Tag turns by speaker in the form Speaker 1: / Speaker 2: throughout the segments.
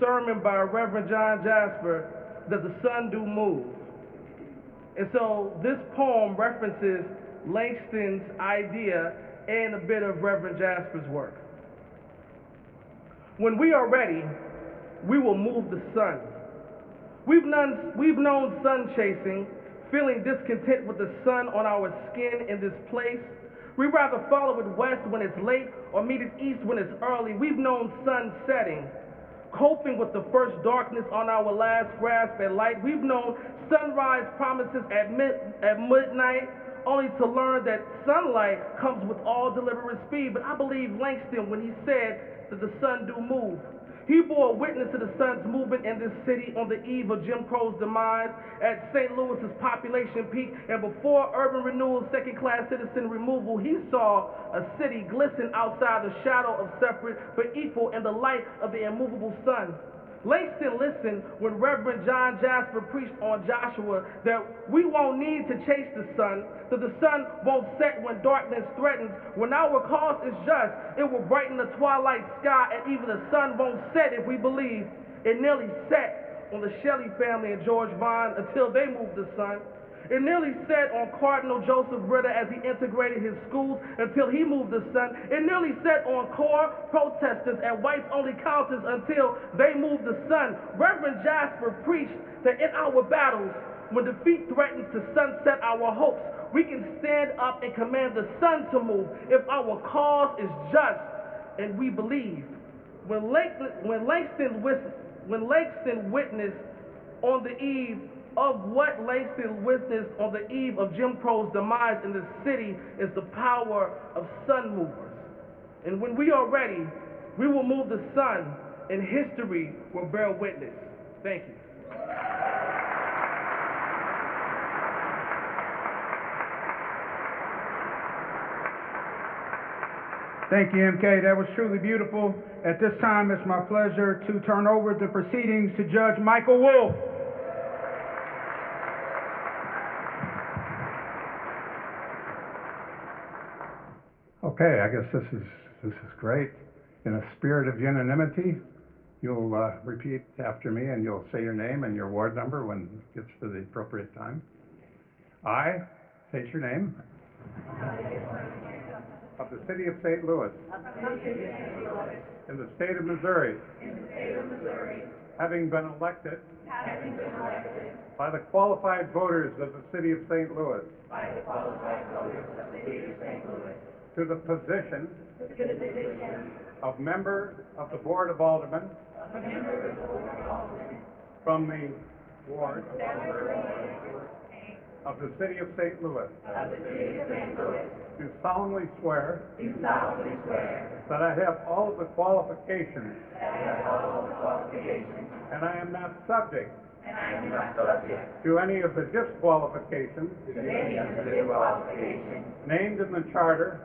Speaker 1: sermon by Reverend John Jasper, Does the Sun Do Move? And so this poem references Langston's idea and a bit of Reverend Jasper's work. When we are ready, we will move the sun. We've known, we've known sun chasing, feeling discontent with the sun on our skin in this place. We rather follow it west when it's late or meet it east when it's early. We've known sun setting, coping with the first darkness on our last grasp at light. We've known sunrise promises at, mid, at midnight, only to learn that sunlight comes with all deliberate speed. But I believe Langston when he said that the sun do move. He bore witness to the sun's movement in this city on the eve of Jim Crow's demise, at St. Louis's population peak, and before urban renewal's second-class citizen removal, he saw a city glisten outside the shadow of separate but equal in the light of the immovable sun. Langston listened when Reverend John Jasper preached on Joshua that we won't need to chase the sun, that the sun won't set when darkness threatens. When our cause is just, it will brighten the twilight sky, and even the sun won't set if we believe. It nearly set on the Shelley family and George Vine until they moved the sun. It nearly set on Cardinal Joseph Ritter as he integrated his schools until he moved the sun. It nearly set on core protesters at whites only counters until they moved the sun. Reverend Jasper preached that in our battles, when defeat threatens to sunset our hopes, we can stand up and command the sun to move if our cause is just and we believe. When, Langston, when, Langston, wis- when Langston witnessed on the eve of what Langston witnessed on the eve of Jim Crow's demise in this city is the power of sun movers. And when we are ready, we will move the sun, and history will bear witness. Thank you.
Speaker 2: Thank you, MK. That was truly beautiful. At this time, it's my pleasure to turn over the proceedings to Judge Michael Wolf.
Speaker 3: Okay, I guess this is, this is great. In a spirit of unanimity, you'll uh, repeat after me and you'll say your name and your ward number when it gets to the appropriate time. I state your name. Of the city of St. Louis. In the state of Missouri. Having been elected. By the qualified voters of the city of St. Louis. To the position. Of member of the Board of Aldermen. From the ward. Of the city of St. Louis. Do solemnly swear. That I have all of the qualifications. And I am not subject. To any of the disqualifications. Named in the charter.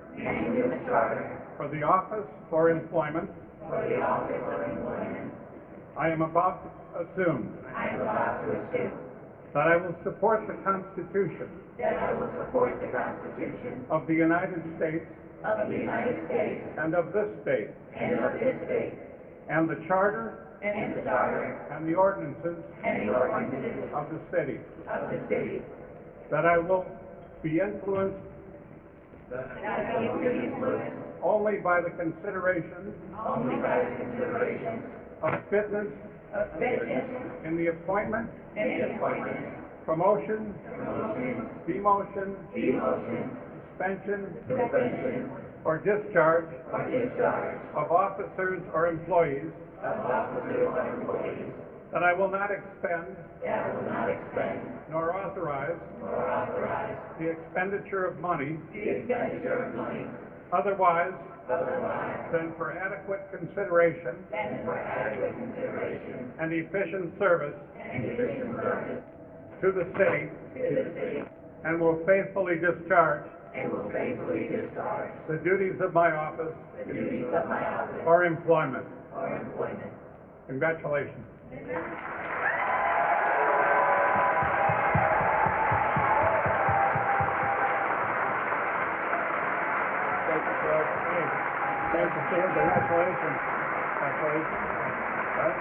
Speaker 3: For the office or employment. I am about to assume. That I will support the Constitution. Of the United States. And of this state. And the charter. And the ordinances. Of the city. That I will be influenced. Only by the consideration. Of fitness. In the appointment. Promotion. Demotion. Suspension. Or discharge. Of officers or employees. That I will not expend. Nor authorize. The expenditure of money. Otherwise. Than for adequate consideration. And efficient service. To the city. And will faithfully discharge. The duties of my office. Or employment. Congratulations.
Speaker 4: Thank you, sir. Thank you, sir. Congratulations. Congratulations. All right.